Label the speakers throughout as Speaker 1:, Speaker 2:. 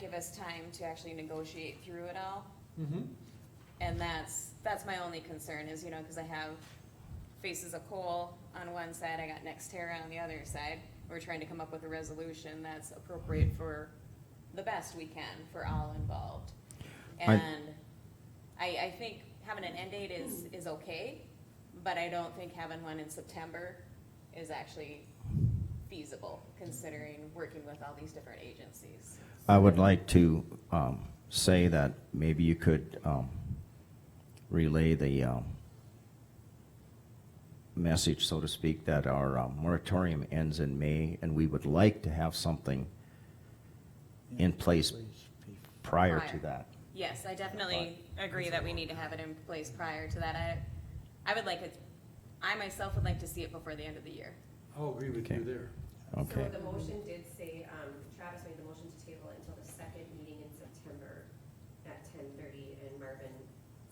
Speaker 1: give us time to actually negotiate through it all.
Speaker 2: Mm-hmm.
Speaker 1: And that's, that's my only concern is, you know, cause I have Faces of Coal on one side, I got Nextera on the other side. We're trying to come up with a resolution that's appropriate for the best we can for all involved.
Speaker 3: I-
Speaker 1: And I, I think having an end date is, is okay, but I don't think having one in September is actually feasible considering working with all these different agencies.
Speaker 3: I would like to um, say that maybe you could um, relay the um, message, so to speak, that our um, moratorium ends in May, and we would like to have something in place prior to
Speaker 1: Prior.
Speaker 3: that.
Speaker 1: Yes, I definitely agree that we need to have it in place prior to that. I, I would like it, I myself would like to see it before the end of the year.
Speaker 2: I'll agree with
Speaker 3: Okay.
Speaker 2: you there.
Speaker 3: Okay.
Speaker 4: So the motion did say, um, Travis made the motion to table it until the second meeting in September at ten thirty, and Marvin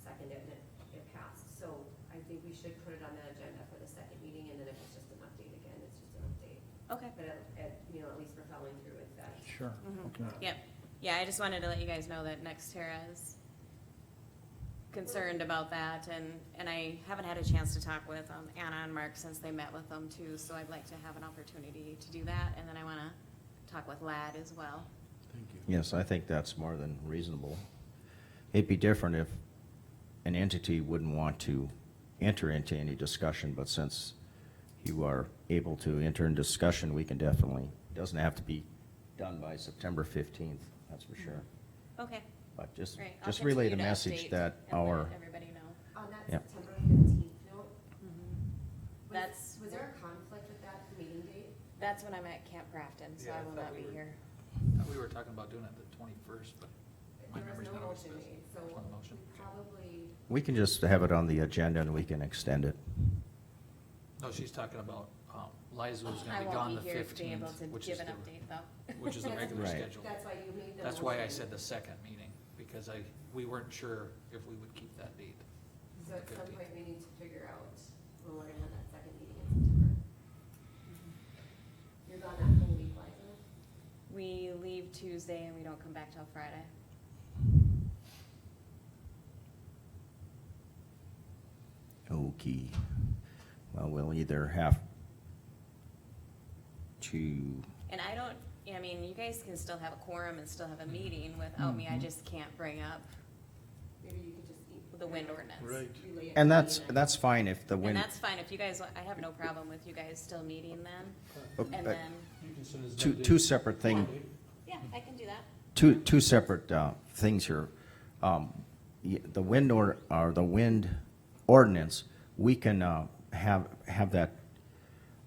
Speaker 4: seconded it, and it- it passed. So I think we should put it on the agenda for the second meeting, and then if it's just an update again, it's just an update.
Speaker 1: Okay.
Speaker 4: But at, at, you know, at least we're following through with that.
Speaker 5: Sure, okay.
Speaker 1: Yep. Yeah, I just wanted to let you guys know that Nextera is concerned about that and, and I haven't had a chance to talk with um, Anna and Mark since they met with them too, so I'd like to have an opportunity to do that. And then I wanna talk with Lad as well.
Speaker 2: Thank you.
Speaker 3: Yes, I think that's more than reasonable. It'd be different if an entity wouldn't want to enter into any discussion, but since you are able to enter in discussion, we can definitely, doesn't have to be done by September fifteenth, that's for sure.
Speaker 1: Okay,
Speaker 3: But just,
Speaker 1: great. I'll
Speaker 3: just relay the
Speaker 1: continue to
Speaker 3: message
Speaker 1: update
Speaker 3: that
Speaker 1: and let
Speaker 3: our,
Speaker 1: Everybody know.
Speaker 4: On that
Speaker 3: Yep.
Speaker 4: September fifteenth note, was-
Speaker 1: Mm-hmm. That's-
Speaker 4: Was there a conflict with that meeting date?
Speaker 1: That's when I'm at Camp Grafton, so
Speaker 5: Yeah,
Speaker 1: I
Speaker 5: I
Speaker 1: will
Speaker 5: thought
Speaker 1: not
Speaker 5: we
Speaker 1: be
Speaker 5: were-
Speaker 1: here.
Speaker 5: We were talking about doing it the twenty-first, but my
Speaker 4: There was
Speaker 5: memory's
Speaker 4: no
Speaker 5: not always
Speaker 4: motion
Speaker 5: best.
Speaker 4: made, so
Speaker 5: There's one motion.
Speaker 4: we probably,
Speaker 3: we can just have it on the agenda and we can extend it.
Speaker 5: No, she's talking about, um, Liza was
Speaker 1: I
Speaker 5: gonna be gone
Speaker 1: won't
Speaker 5: the
Speaker 1: be here to be able
Speaker 5: fifteenth,
Speaker 1: to
Speaker 5: which is
Speaker 1: give an
Speaker 5: the,
Speaker 1: update though.
Speaker 5: which is the
Speaker 4: That's-
Speaker 5: regular
Speaker 3: Right.
Speaker 5: schedule.
Speaker 4: that's why you made the motion.
Speaker 5: That's why I said the second meeting, because I, we weren't sure if we would keep that date.
Speaker 4: So at some
Speaker 5: 15th.
Speaker 4: point, we need to figure out when we're gonna have that second meeting in September. You're gone that whole week, Liza?
Speaker 1: We leave Tuesday and we don't come back till Friday.
Speaker 3: Okay. Well, we'll either have to
Speaker 1: And I don't, I mean, you guys can still have a quorum and still have a meeting without me,
Speaker 5: Mm-hmm.
Speaker 1: I just can't bring up
Speaker 4: Maybe you could just eat.
Speaker 1: the wind ordinance.
Speaker 2: Right.
Speaker 4: relay it to
Speaker 3: And
Speaker 4: me
Speaker 3: that's,
Speaker 4: then.
Speaker 3: that's fine if the
Speaker 1: And
Speaker 3: wind,
Speaker 1: that's fine, if you guys, want- I have no problem with you guys still meeting then,
Speaker 3: uh,
Speaker 1: and
Speaker 3: uh,
Speaker 1: then,
Speaker 2: You can send us
Speaker 3: two,
Speaker 2: that
Speaker 3: two
Speaker 2: date.
Speaker 3: separate thing,
Speaker 1: yeah, I can do that.
Speaker 3: two, two separate, uh, things here. Um, y- the wind or, or the wind ordinance, we can, uh, have, have that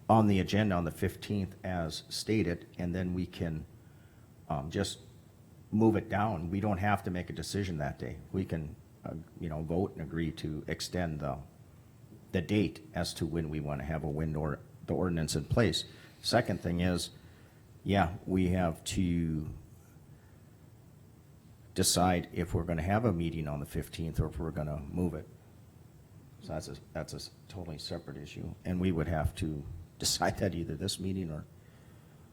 Speaker 3: on the agenda on the fifteenth as stated, and then we can, um, just move it down. We don't have to make a decision that day. We can, uh, you know, vote and agree to extend the, the date as to when we want to have a wind or, the ordinance in place. Second thing is, yeah, we have to decide if we're going to have a meeting on the 15th or if we're going to move it. So that's a, that's a s- totally separate issue. And we would have to decide that either this meeting or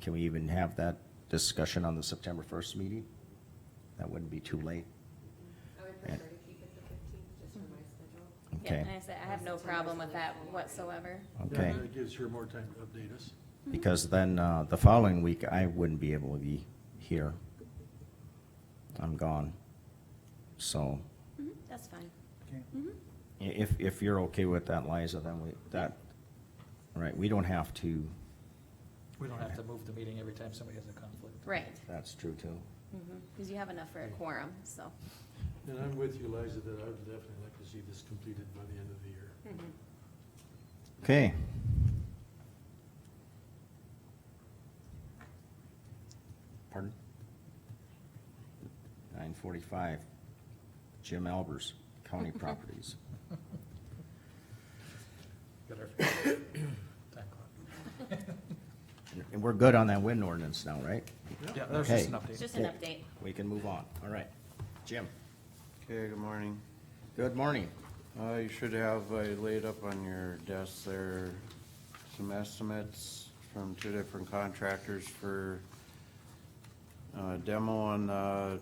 Speaker 3: can we even have that discussion on the September 1st meeting? That wouldn't be too late.
Speaker 4: Mm-hmm. I would prefer to keep it the fifteenth, just for my schedule.
Speaker 1: Yeah,
Speaker 3: Okay.
Speaker 1: and I said, I have no problem with that whatsoever.
Speaker 3: Okay.
Speaker 2: Yeah, That gives her more time to update us.
Speaker 1: Mm-hmm.
Speaker 3: Because then, uh, the following week, I wouldn't be able to be here. I'm gone. So
Speaker 1: Mhm, That's fine.
Speaker 5: Okay.
Speaker 1: Mm-hmm.
Speaker 3: i- if, if you're okay with that, Liza, then we, that, all right, we don't have to,
Speaker 5: We don't have to move the meeting every time somebody has a conflict.
Speaker 1: Right,
Speaker 3: that's true too.
Speaker 1: because Mm-hmm. you have enough for a quorum, so.
Speaker 2: And I'm with you, Liza, that I would definitely like to see this completed by the end of the year.
Speaker 3: Okay. Pardon? Nine forty-five, Jim Albers, County Properties.
Speaker 5: Got our time clock.
Speaker 3: And we're good on that wind ordinance now, right?
Speaker 5: Yeah, that was just an
Speaker 3: Okay.
Speaker 1: It's
Speaker 5: update.
Speaker 1: just an update.
Speaker 3: We can move on. All right. Jim,
Speaker 6: Okay, good morning.
Speaker 3: good morning.
Speaker 6: Uh, you should have, I laid up on your desk there, some estimates from two different contractors for, uh, uh, demo on, uh,